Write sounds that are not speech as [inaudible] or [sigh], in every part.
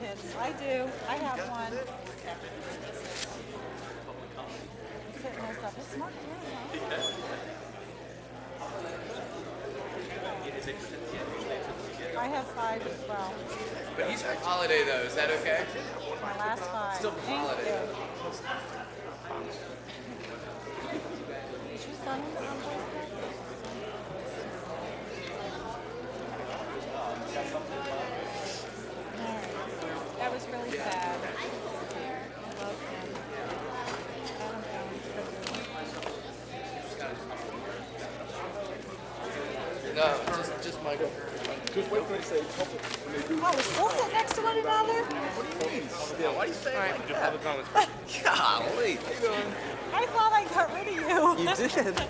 minutes. I do. I have one. I'm setting this up. It's not good, huh? I have five as well. But he's on holiday though, is that okay? My last five. Still Thank holiday. you. Did you sign it on Facebook? All right. That was really sad. I love him. Adam Jones. No, just, just Michael. Just wait for it to say public. When they do, Oh, we still sit next to one another? what do you mean? Yeah, why do you say it like Just public comments. Golly. How you doing? I thought I got rid of you. did. [laughs]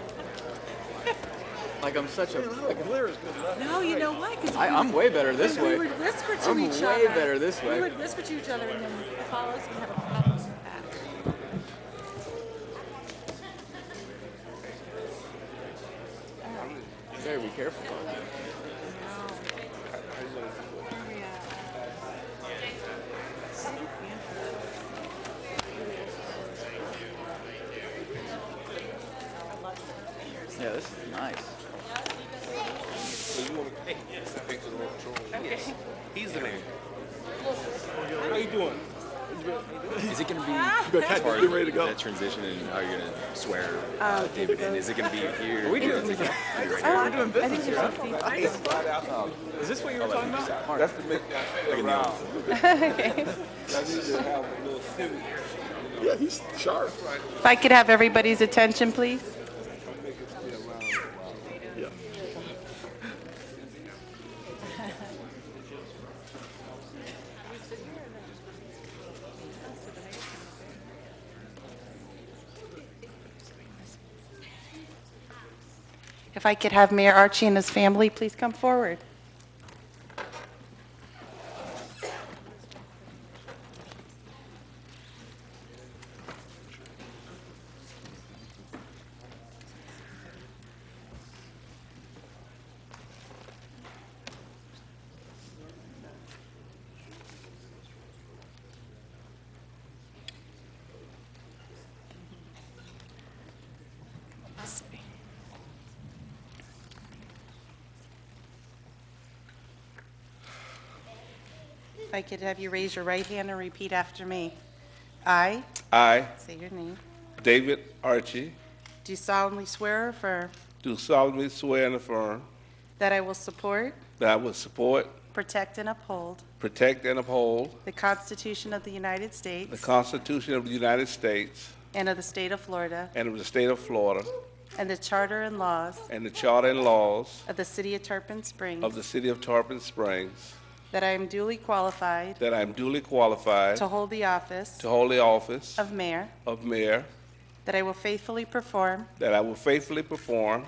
like I'm such a. Look, glare is good enough. No, you know why? Because I, I'm way better this we way. would whisper to I'm each way other. better this We way. would whisper to each other and then follow us and have a problem with that. Very be careful. Yeah, this is nice. So you want to thanks for the wrong control. He's the man. How you doing? Is it going to be Good. Cat, hard? you ready to go? That transition and how you're going to swear uh, David in? Is it going to be here? We Is doing? it gonna- We're doing business here. huh? Is this what you were talking about? Mark, That's to make that thing around. I need to have a little civic. Yeah, he's sharp. If I could have everybody's attention, please. If I could have Mayor Archie and his family please come forward. If I could have you raise your right hand and repeat after me. I, I, say your name, David Archie, do solemnly swear or affirm do solemnly swear and affirm that I will support, that I will support, protect, and uphold protect, and uphold the Constitution of the United the States Constitution of the United States and of the state of Florida, and of the state of Florida, and the charter and laws and the charter and laws of the city of Tarpon of Springs, the city of Tarpon Springs, that I am duly qualified that I am duly qualified to hold the office to hold the office of mayor, of mayor, that I will faithfully perform that I will faithfully perform